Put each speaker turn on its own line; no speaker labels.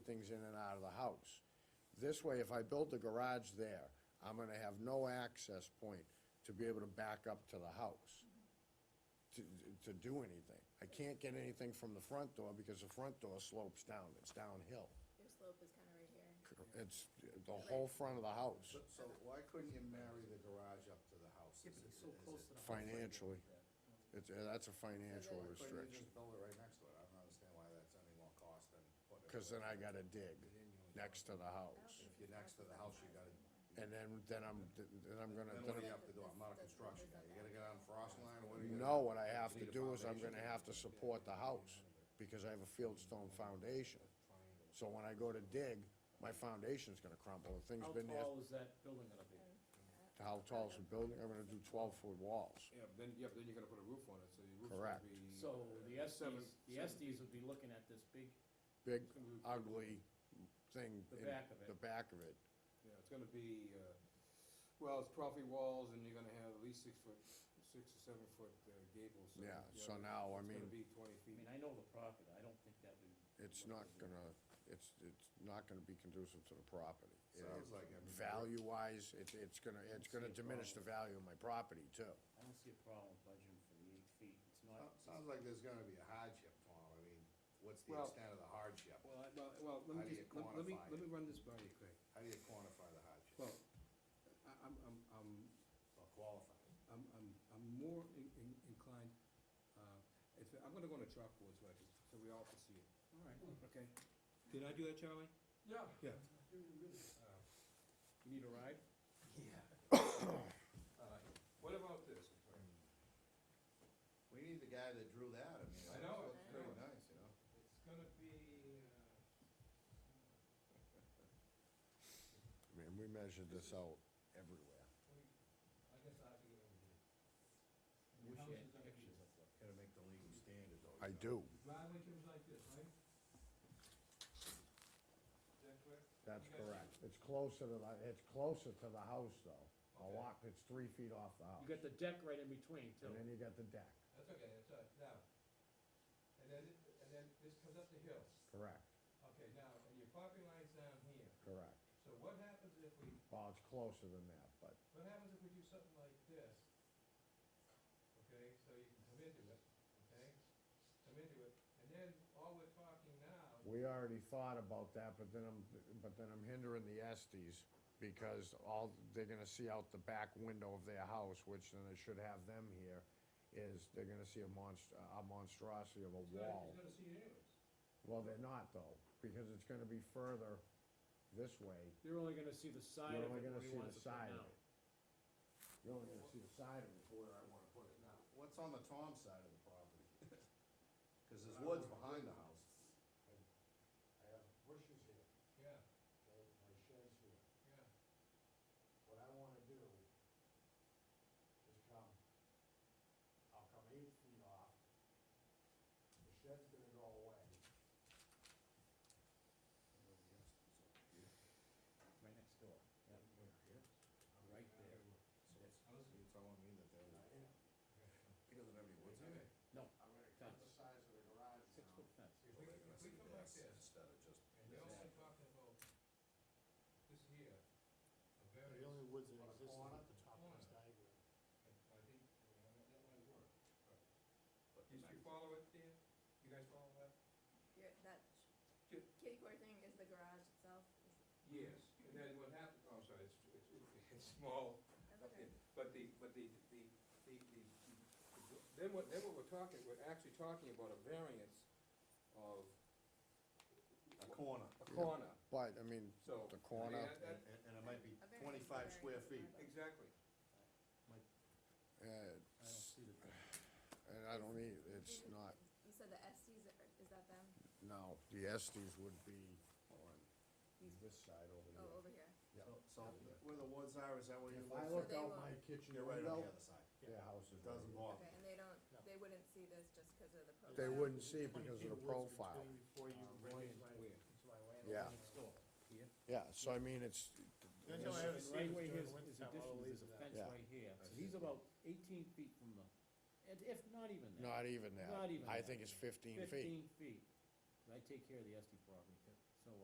things in and out of the house. This way, if I build the garage there, I'm gonna have no access point to be able to back up to the house to, to do anything. I can't get anything from the front door because the front door slopes down, it's downhill.
Your slope is kind of right here.
It's the whole front of the house
So, so why couldn't you marry the garage up to the house?
Yeah, but it's so close to the.
financially. It's, uh, that's a financial
Why couldn't you
restriction,
just build it right next to it? I don't understand why that's any more cost than putting it.
cause then I gotta dig next to the house.
If you're next to the house, you gotta,
And then, then I'm, then I'm gonna, then
then what do
I'm
you have to do? I'm not a construction guy. You gotta get on frost line, or what do you?
No, what I have to do is I'm gonna have to support the house, because I have a fieldstone foundation. So when I go to dig, my foundation's gonna crumble, the thing's
How
been there,
tall is that building gonna be?
how tall's the building, I'm gonna do twelve-foot walls.
Yeah, but then, yeah, but then you're gonna put a roof on it, so your roof's
Correct.
gonna be. uh,
So the Estes,
Seven-
the
seven.
Estes would be looking at this big,
Big,
it's gonna be-
ugly thing. in
The back of it.
The back of it,
Yeah, it's gonna be, uh, well, it's property walls, and you're gonna have at least six foot, six or seven foot uh, gables. so,
yeah,
you
so
know,
now, I
It's
mean,
gonna be twenty
I
feet.
mean, I know the property, I don't think that would.
it's not gonna, it's, it's not gonna be conducive to the property. It-
Sounds like it.
Value-wise, it's, it's gonna, it's gonna diminish the value of my property too.
I don't see a problem budgeting for the eight feet, it's not.
Sounds- Sounds like there's gonna be a hardship, Tom. I mean, what's the
Well-
extent of the hardship?
Well, I, well, well, let
How do
me
you
just, let let me,
quantify
let
it?
me run this by you, Craig.
How do you quantify the hardship?
Well, I, I'm, I'm, I'm,
Or qualify it?
I'm, I'm, I'm more in, in- inclined, uh, if, I'm gonna go on a chalkboard so I can, so we all can see it.
All right.
Okay. Did I do that, Charlie? Mm-hmm. Yeah. Yeah. Uh, You need a ride? Yeah. What about this?
We need the guy that drew that. I mean,
I
that
know,
looks
I
pretty
know.
nice, you know?
It's gonna be, uh,
I mean, we measured this out everywhere.
I guess I have to get over here.
Wish
How
you
much
had
is that gonna be?
pictures of what- Gotta make the legal standard though. you
I
know?
do.
Driveway comes like this, right? Is that
That's
correct? You guys-
correct. It's closer to the, it's closer to the house though. A
Okay.
lot, it's three feet off the
You
house.
got the deck right in between too.
And then you got the deck,
That's okay, that's all right, now. And then, it- and then this comes up the hill.
correct,
Okay, now, and your property line's down here.
correct.
So what happens if we,
Well, it's closer than that, but
what happens if we do something like this? Okay, so you can come into it, okay? Come into it, and then all we're talking now
we already thought about that, but then I'm, but then I'm hindering the Estes because all, they're gonna see out the back window of their house, which then it should have them here, is they're gonna see a monst, a monstrosity of a
He's gonna,
wall.
he's gonna see it anyways.
Well, they're not though, because it's gonna be further this way
You're only gonna see the side
You're
of it
only
where
gonna
he
see the
wants it
side of
now.
it. You're only gonna see the side of it for where I wanna put it now.
What's on the Tom side of the property? Cause there's woods behind the house.
I have bushes here,
Yeah,
okay, my shed's here.
yeah.
What I wanna do is come, I'll come eight feet off. The shed's gonna go away.
Right next door. Right there.
You're telling me that they're, he doesn't have any woods on it?
I'm gonna cut the size of the garage
Six
down.
foot fence.
If we, if we come like this,
Instead of just.
and you're only talking about this here, a
The
variance,
only woods that
On a
exist is
corner?
at the top of this diagram.
I think, uh, that that might work. Did you follow it there? You guys follow that?
Your, that
Ju-
kitty core thing is the garage itself. Is-
Yes, and then what happened, oh, I'm sorry, it's, it's, it's small,
That's okay.
Okay, but the, but the, the, the, the, the- then what, then what we're talking, we're actually talking about a variance of
A corner,
a corner,
But, I mean,
so.
The corner.
I
and,
mean, that- that-
and- and it might
A
be
variance is a
twenty-five
variance,
square
it's
feet.
not a-
Exactly.
uh,
I don't see the deck.
and I don't need, it's not,
You said the Estes, are- is that them?
no, the Estes would be on this side over
Oh,
here.
over here.
Yeah.
So- So, where the woods are, is that where you
If I
live?
look
So they
out
will-
my kitchen
You're right
window,
on the other side.
their house is right
It doesn't
here.
bother.
Okay, and they don't,
No.
they wouldn't see this just because of the profile.
They wouldn't see it
Twenty
because of
feet
the
woods
profile.
between Before you
Where-
bring it right
where?
into my land.
Yeah.
Next door.
Yeah, so I mean, it's,
That's how I
Right
have a scene
where
during
his,
the
his
wintertime,
addition
all
is
the leaves
a
are down.
fence
Yeah.
right here, so he's about eighteen feet from the, and if not even that.
not even that.
Not even
I
that.
think it's fifteen feet.
Fifteen feet. I take care of the Estes property.